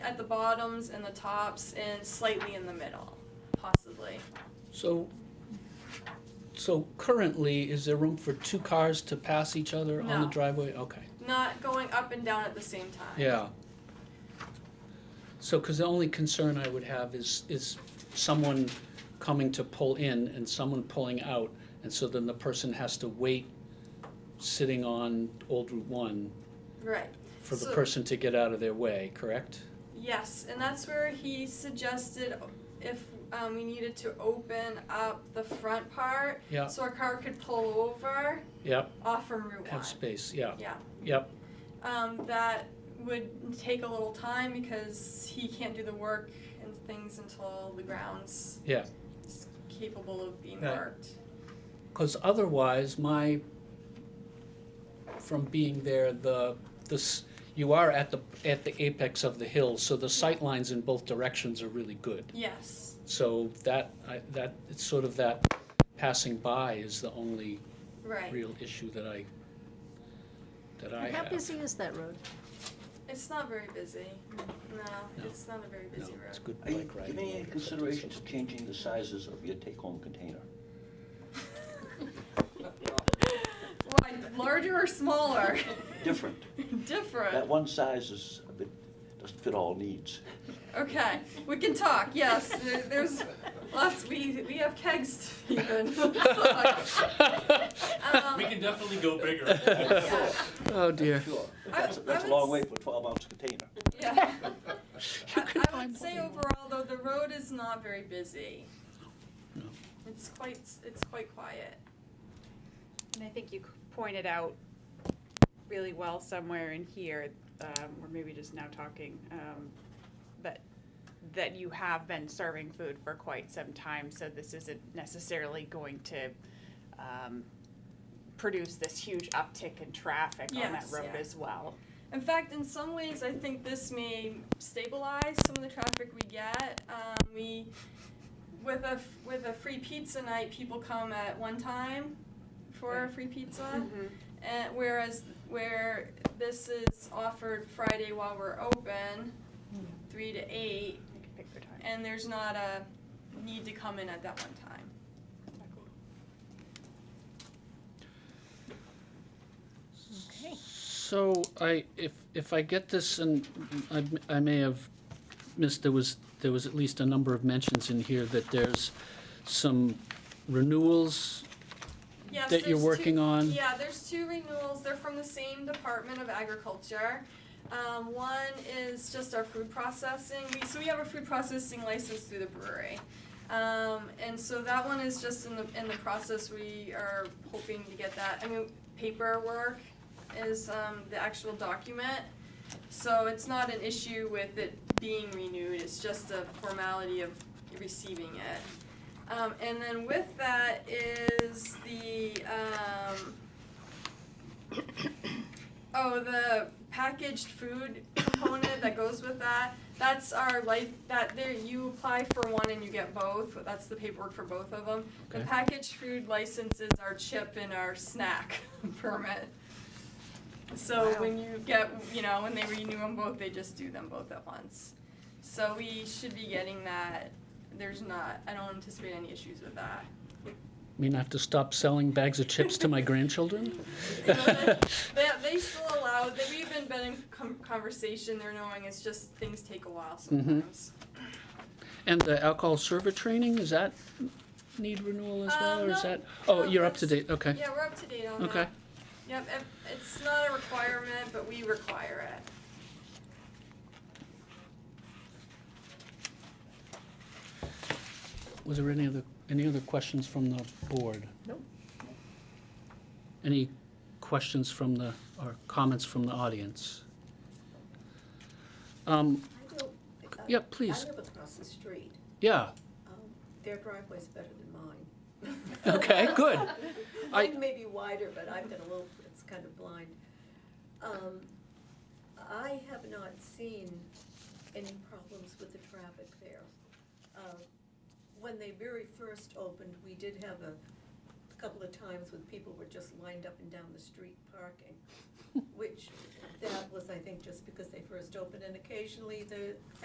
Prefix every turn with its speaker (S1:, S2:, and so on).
S1: at the bottoms and the tops and slightly in the middle, possibly.
S2: So, so currently, is there room for two cars to pass each other on the
S1: No.
S2: driveway? Okay,
S1: Not going up and down at the same time.
S2: yeah. So, because the only concern I would have is, is someone coming to pull in and someone pulling out, and so then the person has to wait, sitting on Old Route One,
S1: Right.
S2: for the
S1: So-
S2: person to get out of their way, correct?
S1: Yes, and that's where he suggested if um, we needed to open up the front part
S2: Yeah.
S1: so our car could pull over
S2: Yep,
S1: off from Route
S2: have
S1: 1.
S2: space, yeah,
S1: Yeah.
S2: yep,
S1: Um, that would take a little time because he can't do the work and things until the grounds
S2: Yeah.
S1: is capable of being
S2: Right.
S1: worked.
S2: Because otherwise, my, from being there, the, this, you are at the, at the apex of the hill, so the sight lines in both directions are really good.
S1: Yes.
S2: So that, I, that, it's sort of that passing by is the only
S1: Right.
S2: real issue that I, that I
S3: How
S2: have.
S3: busy is that road?
S1: It's not very busy. No,
S2: No.
S1: it's not a very
S2: No,
S1: busy
S2: it's
S1: road.
S2: good
S4: Are you
S2: bike riding.
S4: giving any
S2: over, but-
S4: consideration to changing the sizes of your take-home container?
S1: Why, larger or smaller?
S4: Different. That
S1: Different.
S4: one size is a bit, doesn't fit all needs.
S1: Okay, we can talk. Yes, there, there's lots. We we have kegs to even. um,
S5: We can definitely go bigger.
S1: yeah,
S2: Oh, dear.
S4: Sure. But
S1: I-
S4: That's,
S1: I
S4: that's a
S1: would
S4: long
S1: s-
S4: way for a twelve-ounce container.
S1: yeah.
S2: You
S1: I,
S2: can
S1: I
S2: find
S1: would say
S2: more.
S1: overall, though, the road is not very busy.
S2: No.
S1: It's quite it's quite quiet.
S6: And I think you c- pointed out really well somewhere in here, um, or maybe just now talking, um, but that you have been serving food for quite some time, so this isn't necessarily going to, um, produce this huge uptick in traffic on that
S1: Yes,
S6: road
S1: yeah.
S6: as well.
S1: In fact, in some ways, I think this may stabilize some of the traffic we get. Um, we, with a f- with a free pizza night, people come at one time for a free pizza, and whereas where this is offered Friday while we're open, three to eight,
S6: You can pick your time.
S1: and there's not a need to come in at that one time.
S3: Okay.
S2: So I, if, if I get this, and I, I may have missed, there was, there was at least a number of mentions in here that there's some renewals
S1: Yes,
S2: that you're
S1: there's two-
S2: working on.
S1: Yeah, there's two renewals. They're from the same Department of Agriculture. Um, one is just our food processing. We, so we have a food processing license through the brewery. Um, and so that one is just in the, in the process. We are hoping to get that. I mean, paperwork is, um, the actual document. So it's not an issue with it being renewed. It's just a formality of receiving it. Um, and then with that is the, um, oh, the packaged food component that goes with that. That's our life, that there, you apply for one and you get both, that's the paperwork for both of them. The
S2: Okay.
S1: packaged food license is our chip and our snack permit. So
S6: Wow.
S1: when you get, you know, when they renew them both, they just do them both at once. So we should be getting that there's not, I don't anticipate any issues with that.
S2: I mean, I have to stop selling bags of chips to my grandchildren?
S1: You know, they- They, they still allow, they, we've been, been in com- conversation, they're knowing it's just, things take a while
S2: Mm-hmm.
S1: sometimes.
S2: And the alcohol server training, is that need renewal as well,
S1: Um,
S2: or is
S1: no,
S2: that? Oh,
S1: no,
S2: you're up to
S1: that's-
S2: date, okay,
S1: Yeah, we're up to date on that.
S2: okay.
S1: Yep, it- it's not a requirement, but we require it.
S2: Was there any other, any other questions from the board?
S3: Nope.
S2: Any questions from the, or comments from the audience? Um,
S7: I don't- I-
S2: Yeah, please.
S7: I live across the street.
S2: yeah,
S7: Um, Their driveway's better than mine.
S2: okay, good. I-
S7: Mine may be wider, but I've got a little, it's kind of blind. Um, I have not seen any problems with the traffic there. Uh, When they very first opened, we did have a couple of times when people were just lined up and down the street parking, which that was, I think, just because they first opened, and occasionally the